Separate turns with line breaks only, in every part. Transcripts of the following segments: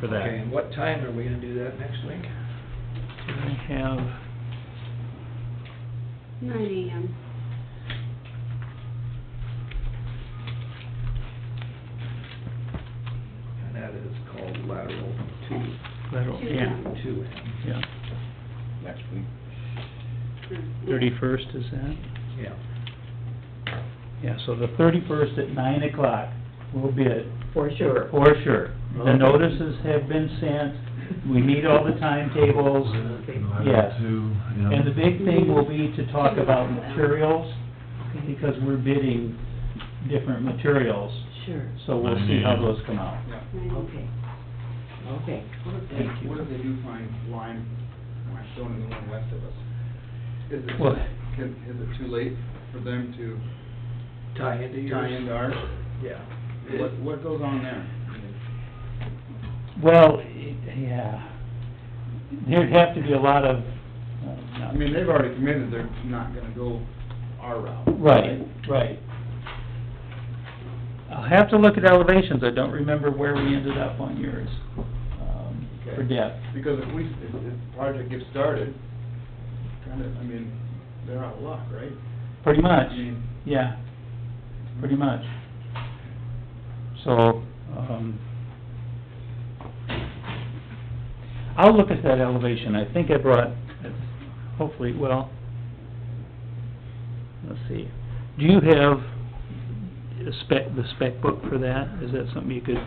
for that.
Okay, and what time are we gonna do that next week?
I have,
Nine AM.
And that is called lateral two,
that'll, yeah,
two M,
yeah.
next week.
Thirty-first is that?
yeah.
Yeah, so the thirty-first at nine o'clock will bid,
for sure.
for sure. The notices have been sent, we need all the timetables. Yes. And the big thing will be to talk about materials, because we're bidding different materials,
Sure,
so we'll see how those come out.
Yeah.
okay, okay.
What
Thank
if they,
you.
what if they do find lime, lime stone in the one west of us? Is it,
Well-
can, is it too late for them to
Tie into yours?
tie into ours?
Yeah.
What, what goes on there?
Well, yeah, there'd have to be a lot of, uh,
I mean, they've already committed, they're not gonna go our route.
Right, right. I'll have to look at elevations, I don't remember where we ended up on yours, um, for
Okay.
depth.
Because if we, if, if the project gets started, kinda, I mean, they're out of luck, right?
Pretty much,
I mean-
yeah, pretty much. So, um, I'll look at that elevation, I think I brought, hopefully, well, let's see. Do you have a spec, the spec book for that? Is that something you could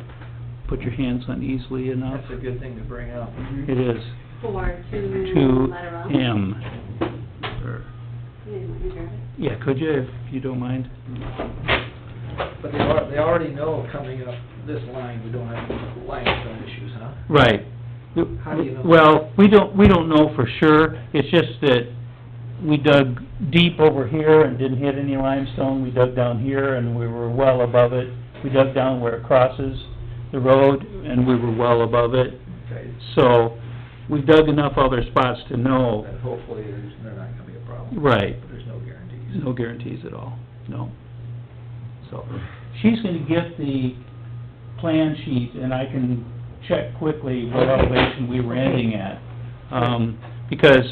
put your hands on easily enough?
That's a good thing to bring up.
It is
Four to.
two
lateral.
M. Or-
Wait, let me grab it.
Yeah, could you, if you don't mind?
But they are, they already know coming up this line, we don't have limestone issues, huh?
Right.
How do you know?
Well, we don't, we don't know for sure, it's just that we dug deep over here and didn't hit any limestone, we dug down here and we were well above it. We dug down where it crosses the road and we were well above it,
Okay,
so we dug enough other spots to know,
then hopefully there's, they're not gonna be a problem.
Oh. right,
But There's no guarantees.
no guarantees at all, no. So, she's gonna get the plan sheet, and I can check quickly what elevation we were ending at. Um, because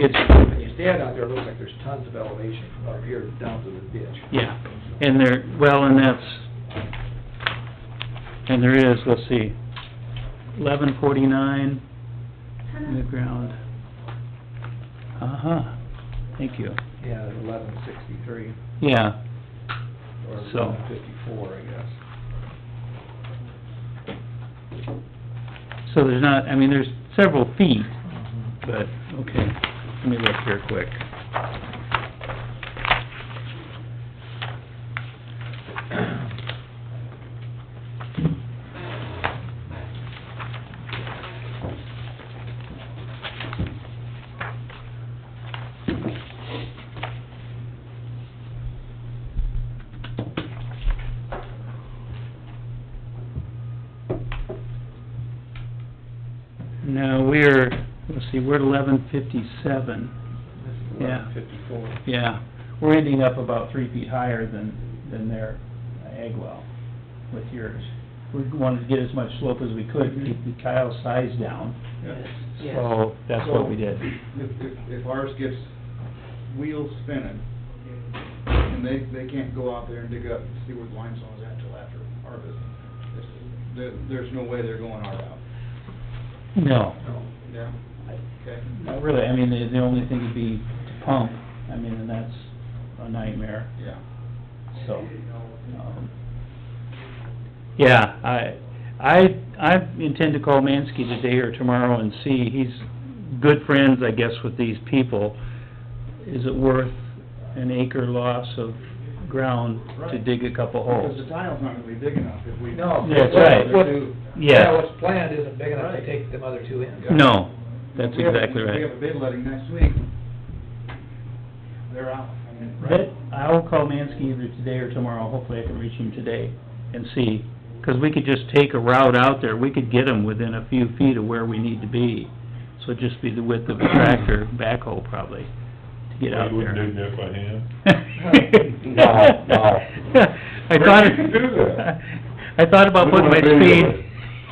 it's,
When you stand out there, it looks like there's tons of elevation from up here down to the ditch.
yeah, and there, well, and that's, and there is, let's see, eleven forty-nine in the ground. Uh-huh, thank you,
Yeah, eleven sixty-three,
yeah.
or
So-
eleven fifty-four, I guess.
So there's not, I mean, there's several feet, but, okay, let me look here quick. No, we're, let's see, we're at eleven fifty-seven,
This is
Yeah.
eleven fifty-four.
yeah. We're ending up about three feet higher than, than their egg well with yours. We wanted to get as much slope as we could, to keep the Kyle size down,
Yes, yes.
so that's what we did.
If, if, if ours gets wheels spinning, and they, they can't go out there and dig up and see where the limestone is at till after harvest, it's- there, there's no way they're going our route.
No,
Yeah. Okay.
not really, I mean, the, the only thing would be to pump, I mean, and that's a nightmare.
Yeah.
So, um, yeah, I, I, I intend to call Mansky today or tomorrow and see, he's good friends, I guess, with these people. Is it worth an acre loss of ground to
Right.
dig a couple
Because
holes?
the tile's not gonna be big enough if we.
No.
That's
what-
right.
what- Yeah,
Yeah,
what's planned isn't big enough to
Right.
take them other two in.
no, that's
If we have-
exactly
If we
right.
have a bid letting next week, they're out, I mean, right?
But I'll call Mansky either today or tomorrow, hopefully I can reach him today and see, 'cause we could just take a route out there, we could get him within a few feet of where we need to be. So it'd just be the width of a tractor backhoe probably, to get out
You wouldn't
there.
do that by hand?
No, no.
I thought,
Where did you do that?
I thought about
We
putting my
wanna video
speed,
it.